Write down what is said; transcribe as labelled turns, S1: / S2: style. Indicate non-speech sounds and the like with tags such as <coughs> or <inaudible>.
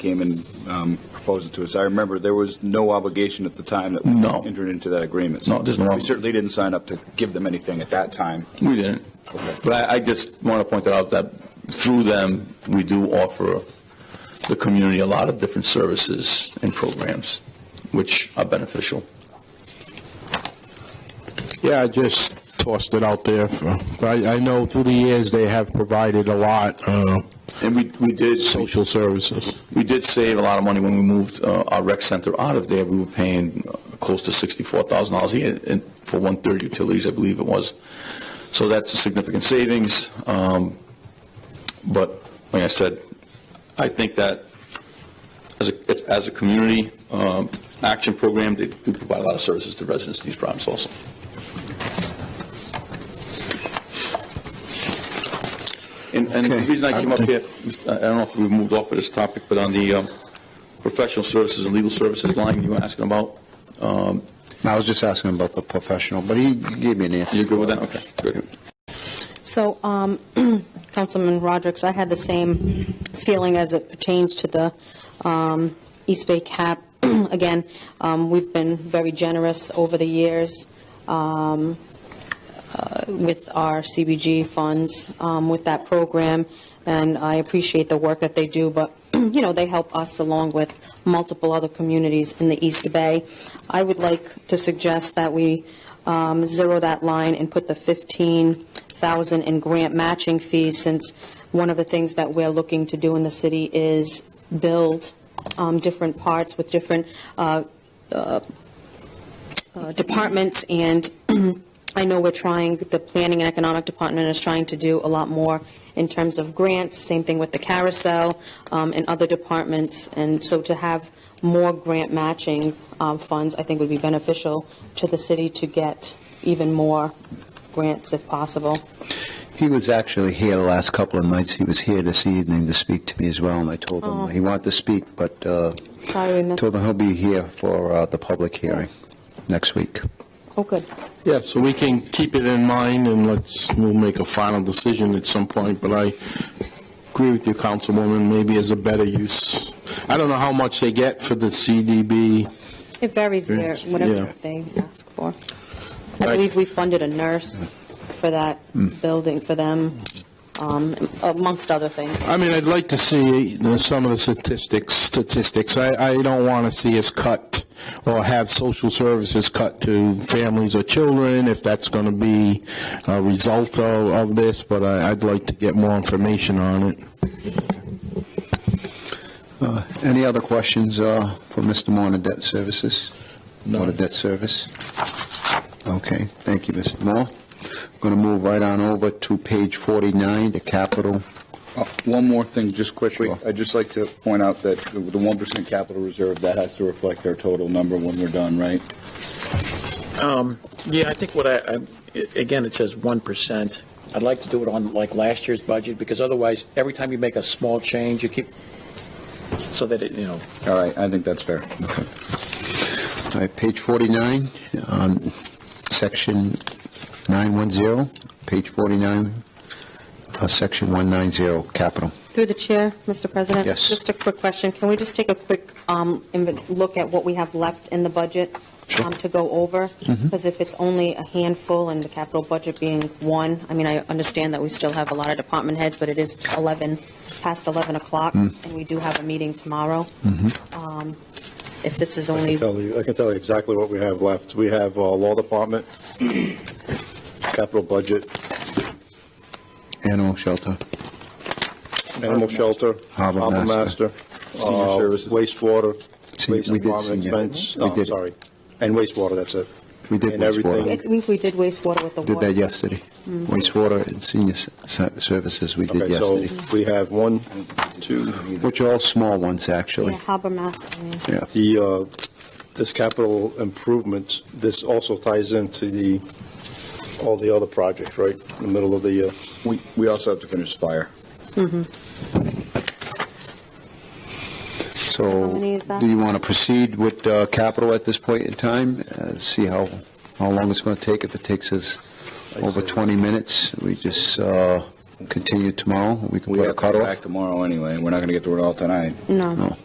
S1: came and um, proposed it to us. I remember there was no obligation at the time that we
S2: No.
S1: entered into that agreement.
S2: No, there's no-
S1: We certainly didn't sign up to give them anything at that time.
S2: We didn't. But I, I just want to point that out that through them, we do offer the community a lot of different services and programs, which are beneficial.
S3: Yeah, I just tossed it out there. for- I, I know through the years, they have provided a lot, uh,
S2: And we, we did,
S3: social services.
S2: we did save a lot of money when we moved uh, our rec center out of there. We were paying uh, close to $64,000 a year in- for one-third utilities, I believe it was. So that's a significant savings. Um, But like I said, I think that as a, as a community um, action program, they do provide a lot of services to residents in these problems also. And, and the reason I came up here, I don't know if we've moved off of this topic, but on the um, professional services and legal services line you were asking about, um,
S4: I was just asking about the professional, but he gave me an answer.
S2: you good with that? Okay, good.
S5: So, um, Councilman Rodrick, I had the same feeling as it <clears throat> pertains to the um, East Bay cap. Again, um, we've been very generous over the years um, uh, with our CBG funds, um, with that program, and I appreciate the work that they do, but, <clears throat> you know, they help us along with multiple other communities in the East Bay. I would like to suggest that we um, zero that line and put the 15,000 in grant matching fees, since one of the things that we're looking to do in the city is build um, different parts with different uh, uh, uh, departments, and <clears throat> I know we're trying, the Planning and Economic Department is trying to do a lot more in terms of grants, same thing with the carousel um, and other departments, and so to have more grant matching um, funds, I think would be beneficial to the city to get even more grants if possible.
S4: He was actually here the last couple of nights. He was here this evening to speak to me as well, and I told
S5: Oh.
S4: him he wanted to speak, but uh,
S5: Sorry we missed,
S4: told him he'll be here for uh, the public hearing next week.
S5: oh, good.
S3: Yeah, so we can keep it in mind, and let's, we'll make a final decision at some point, but I agree with you, Councilwoman, maybe as a better use. I don't know how much they get for the CDB.
S5: It varies there,
S3: Grants,
S5: whatever
S3: yeah.
S5: they ask for. I
S3: Right.
S5: believe we funded a nurse for that building, for them, um, amongst other things.
S3: I mean, I'd like to see uh, some of the statistics, statistics. I, I don't want to see us cut or have social services cut to families or children, if that's going to be a result of, of this, but I, I'd like to get more information on it.
S4: Uh, Any other questions uh, for Mr. Moore on the debt services? Moore to debt service? Okay, thank you, Mr. Moore. Going to move right on over to page 49, the capital.
S1: Uh, One more thing, just quickly.
S4: Sure.
S1: I'd just like to point out that the 1% capital reserve, that has to reflect our total number when we're done, right?
S6: Um, Yeah, I think what I, I'm- a- again, it says 1%. I'd like to do it on like last year's budget, because otherwise, every time you make a small change, you keep, so that it, you know,
S1: All right, I think that's fair.
S4: All right, page 49, um, section 910, page 49, uh, section 190, capital.
S5: Through the chair, Mr. President?
S4: Yes.
S5: Just a quick question. Can we just take a quick um, inven- look at what we have left in the budget um, to go over? Because if it's only a handful and the capital budget being one, I mean, I understand that we still have a lot of department heads, but it is 11, past 11 o'clock, and we do have a meeting tomorrow. Um, If this is
S7: I
S5: only,
S7: can tell you, I can tell you exactly what we have left. We have uh, Law Department, <coughs> Capital Budget,
S4: Animal shelter.
S7: Animal Shelter,
S4: Harbor
S7: Harbor
S4: Master.
S7: Master,
S1: Senior
S7: uh,
S1: services.
S7: Wastewater,
S4: See,
S7: Waste
S4: we did
S7: Department
S4: senior.
S7: expense,
S4: We
S7: oh, I'm
S4: did.
S7: sorry, and wastewater, that's it.
S4: We did
S7: And everything.
S5: I
S4: wastewater.
S5: think we did wastewater with the
S4: Did
S5: water.
S4: that yesterday. Wastewater and senior s- s- services we did
S7: Okay, so
S4: yesterday,
S7: we have one, two,
S4: which are all small ones,
S5: Yeah,
S4: actually.
S5: harbor master, I mean.
S4: Yeah.
S7: the, uh, this capital improvements, this also ties into the, all the other projects, right? In the middle of the uh, year.
S1: We we also have to finish fire.
S4: So,
S5: How many is that?
S4: do you want to proceed with uh, capital at this point in time? Uh, See how, how long it's going to take. If it takes us over 20 minutes, we just uh, continue tomorrow. We can
S1: We
S4: put a
S1: have to come
S4: cutoff.
S1: back tomorrow anyway, we're not going to get through it all tonight.
S4: No.